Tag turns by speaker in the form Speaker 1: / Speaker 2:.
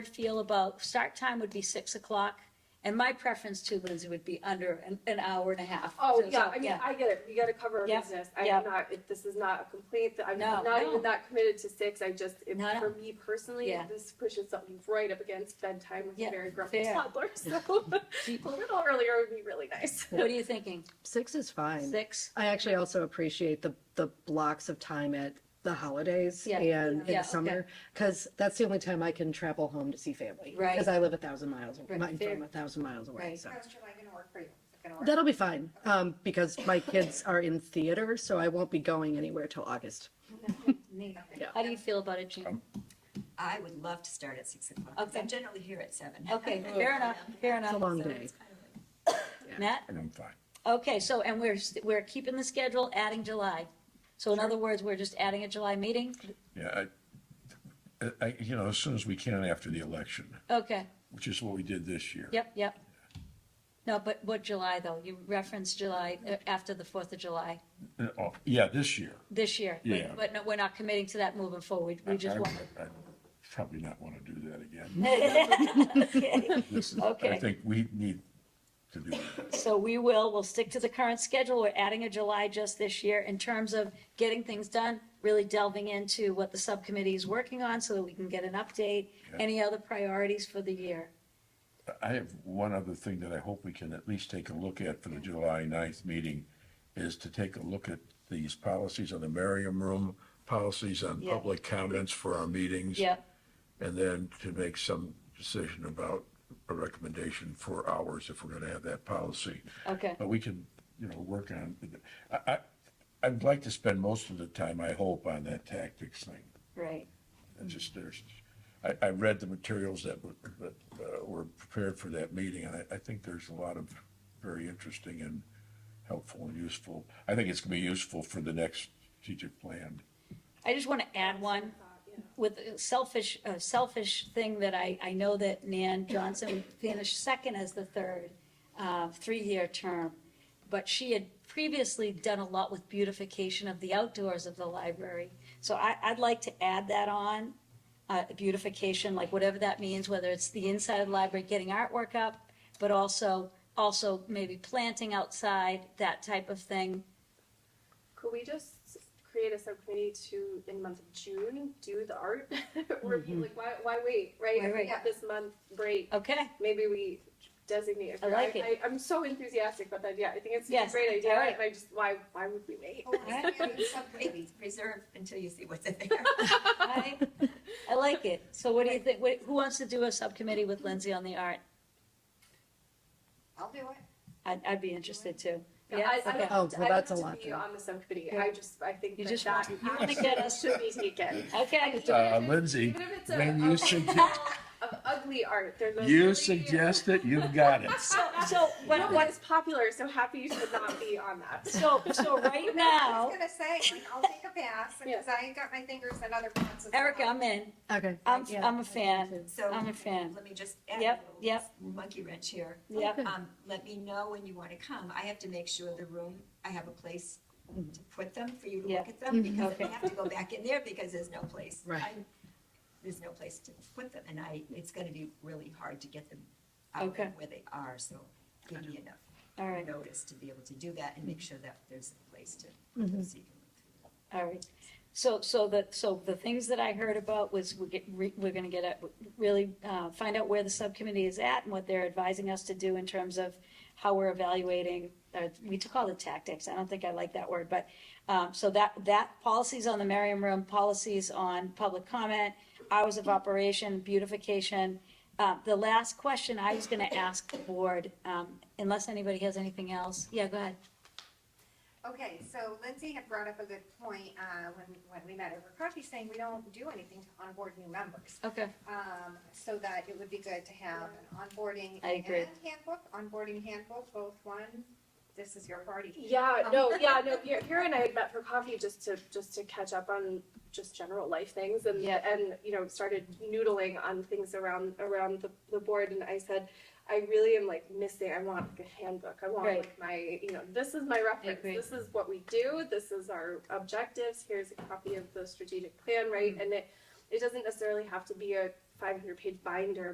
Speaker 1: feel about, start time would be six o'clock, and my preference too, Lindsay, would be under an, an hour and a half.
Speaker 2: Oh,
Speaker 1: So,
Speaker 2: yeah, I mean,
Speaker 1: yeah.
Speaker 2: I get it, you gotta cover a
Speaker 1: Yep,
Speaker 2: business, I
Speaker 1: yep.
Speaker 2: am not, it- this is not a complaint, I'm
Speaker 1: No,
Speaker 2: not
Speaker 1: no.
Speaker 2: even that committed to six, I just, if-
Speaker 1: No, no.
Speaker 2: for me personally,
Speaker 1: Yeah.
Speaker 2: this pushes something right up against bedtime with
Speaker 1: Yeah,
Speaker 2: a very grumpy
Speaker 1: fair.
Speaker 2: toddler, so
Speaker 1: Do you-
Speaker 2: a little earlier would be really nice.
Speaker 1: What are you thinking?
Speaker 3: Six is fine.
Speaker 1: Six?
Speaker 3: I actually also appreciate the, the blocks of time at the holidays
Speaker 1: Yeah.
Speaker 3: and in
Speaker 1: Yeah,
Speaker 3: the summer, because that's the only time I can travel home to see family.
Speaker 1: Right.
Speaker 3: Because I live a thousand miles,
Speaker 1: Right,
Speaker 3: I'm
Speaker 1: fair.
Speaker 3: from a thousand miles away,
Speaker 1: Right.
Speaker 3: so.
Speaker 4: How's July gonna work for you? Is it gonna work?
Speaker 3: That'll be fine, um, because my kids are in theater, so I won't be going anywhere till August.
Speaker 1: Neat.
Speaker 3: Yeah.
Speaker 1: How do you feel about it, Jean?
Speaker 5: I would love to start at six o'clock. 'cause
Speaker 1: Okay.
Speaker 5: I'm generally here at seven.
Speaker 1: Okay, fair enough, fair
Speaker 3: It's a
Speaker 1: enough.
Speaker 3: long
Speaker 5: So
Speaker 3: day.
Speaker 5: it's kind of like-
Speaker 1: Matt?
Speaker 6: And I'm fine.
Speaker 1: Okay, so, and we're, s- we're keeping the schedule, adding July. So in other words, we're just adding a July meeting?
Speaker 6: Yeah, I, I, you know, as soon as we can after the election,
Speaker 1: Okay,
Speaker 6: which is what we did this year.
Speaker 1: yep, yep. No, but what July though? You referenced July, uh, after the Fourth of July
Speaker 6: Uh, Oh, yeah, this year.
Speaker 1: this year. But-
Speaker 6: Yeah.
Speaker 1: But no, we're not committing to that moving forward.
Speaker 6: I-
Speaker 1: We just
Speaker 6: I-
Speaker 1: want.
Speaker 6: I Probably not want to do that again. This is- I
Speaker 1: Okay.
Speaker 6: think we need to do that.
Speaker 1: So we will, we'll stick to the current schedule. We're adding a July just this year in terms of getting things done, really delving into what the subcommittee is working on so that we can get an update.
Speaker 6: Okay.
Speaker 1: Any other priorities for the year?
Speaker 6: I have one other thing that I hope we can at least take a look at for the July 9th meeting, is to take a look at these policies on the Merriam Room, policies on
Speaker 1: Yeah.
Speaker 6: public comments for our meetings.
Speaker 1: Yep,
Speaker 6: And then to make some decision about a recommendation for hours if we're gonna have that policy.
Speaker 1: okay,
Speaker 6: But we can, you know, work on, I, I, I'd like to spend most of the time, I hope, on that tactics thing.
Speaker 1: right.
Speaker 6: It's just, there's, I, I read the materials that were, that uh, were prepared for that meeting, and I, I think there's a lot of very interesting and helpful and useful. I think it's gonna be useful for the next strategic plan.
Speaker 1: I just want to add one with a selfish, a selfish thing that I, I know that Nan Johnson finished second as the third, uh, three-year term. But she had previously done a lot with beautification of the outdoors of the library. So I, I'd like to add that on, uh, beautification, like whatever that means, whether it's the inside of the library, getting artwork up, but also, also maybe planting outside, that type of thing.
Speaker 2: Could we just create a subcommittee to, in the month of June, do the art review, like, why, why wait, right?
Speaker 1: Why
Speaker 2: We
Speaker 1: wait?
Speaker 2: have This month break,
Speaker 1: Okay?
Speaker 2: maybe we designate.
Speaker 1: I like it.
Speaker 2: I, am so enthusiastic about that, yeah, I think it's a
Speaker 1: Yes,
Speaker 2: great idea,
Speaker 1: alright.
Speaker 2: and I just, why, why would we wait?
Speaker 5: Oh, it's gonna be something Reserve until you see what's in there.
Speaker 1: I, I like it. So what do you think, what, who wants to do a subcommittee with Lindsay on the art?
Speaker 4: I'll do it.
Speaker 1: I'd, I'd be interested too.
Speaker 2: Yeah, I, I
Speaker 1: Okay.
Speaker 2: don't,
Speaker 3: Oh, well,
Speaker 2: I don't
Speaker 3: that's a
Speaker 2: have to
Speaker 3: lot
Speaker 2: be
Speaker 3: then.
Speaker 2: on the subcommittee,
Speaker 1: Yeah.
Speaker 2: I just, I think
Speaker 1: You
Speaker 2: that
Speaker 1: just
Speaker 2: that
Speaker 1: want- you want to get us-
Speaker 2: action should be taken.
Speaker 1: Okay,
Speaker 6: Uh, Lindsey,
Speaker 2: Even if it's a-
Speaker 6: when
Speaker 2: a
Speaker 6: you suggest-
Speaker 2: wall Of ugly art, there's. a really-
Speaker 6: You suggest it, you've got it.
Speaker 1: so, so,
Speaker 2: No,
Speaker 1: what,
Speaker 2: but
Speaker 1: what,
Speaker 2: it's popular, so happy you should not be on that.
Speaker 1: so, so right
Speaker 4: I
Speaker 1: now,
Speaker 4: was gonna say, like, I'll take a pass, because I ain't got my fingers in other pots. as
Speaker 1: Erica,
Speaker 4: well.
Speaker 1: I'm in.
Speaker 3: Okay.
Speaker 1: I'm,
Speaker 3: Yeah.
Speaker 1: I'm a fan.
Speaker 5: So
Speaker 1: I'm a fan.
Speaker 5: Let me just add
Speaker 1: Yep,
Speaker 5: a little
Speaker 1: yep.
Speaker 5: monkey wrench here.
Speaker 1: Yep.
Speaker 5: Um, Let me know when you want to come. I have to make sure the room, I have a place to put them for you to
Speaker 1: Yep.
Speaker 5: look at them because
Speaker 1: Mm-hmm. Okay.
Speaker 5: they have to go back in there because there's no place.
Speaker 3: Right.
Speaker 5: I- There's no place to put them and I, it's going to be really hard to get them out
Speaker 1: Okay.
Speaker 5: of where they are, so give me enough
Speaker 1: All right, Mm-hmm.
Speaker 5: notice to be able to do that and make sure that there's a place to put them so you can look through.
Speaker 1: all right. So, so the, so the things that I heard about was we get, re- we're gonna get a, really, uh, find out where the subcommittee is at and what they're advising us to do in terms of how we're evaluating, uh, we took all the tactics, I don't think I like that word, but, um, so that, that, policies on the Merriam Room, policies on public comment, hours of operation, beautification. Uh, the last question I was gonna ask the board, um, unless anybody has anything else, yeah, go ahead.
Speaker 4: Okay, so Lindsay had brought up a good point, uh, when, when we met over coffee, saying we don't do anything to onboard new members.
Speaker 1: Okay.
Speaker 4: Um, so that it would be good to have an onboarding
Speaker 1: I
Speaker 4: and
Speaker 1: agree.
Speaker 4: handbook, onboarding handbook, both one, this is your party.
Speaker 2: Yeah, no, yeah, no. Here, here and I had met for coffee just to just to catch up on just general life things, and
Speaker 1: Yeah.
Speaker 2: and you know started noodling on things around around the, the board. And I said, I really am like missing. I want like a handbook. I want
Speaker 1: Right.
Speaker 2: like my you know this is my reference.
Speaker 1: agree.
Speaker 2: This is what we do. This is our
Speaker 1: Mm.
Speaker 2: objectives. Here's a copy of the strategic plan, right? And it it doesn't necessarily have to be a five hundred page binder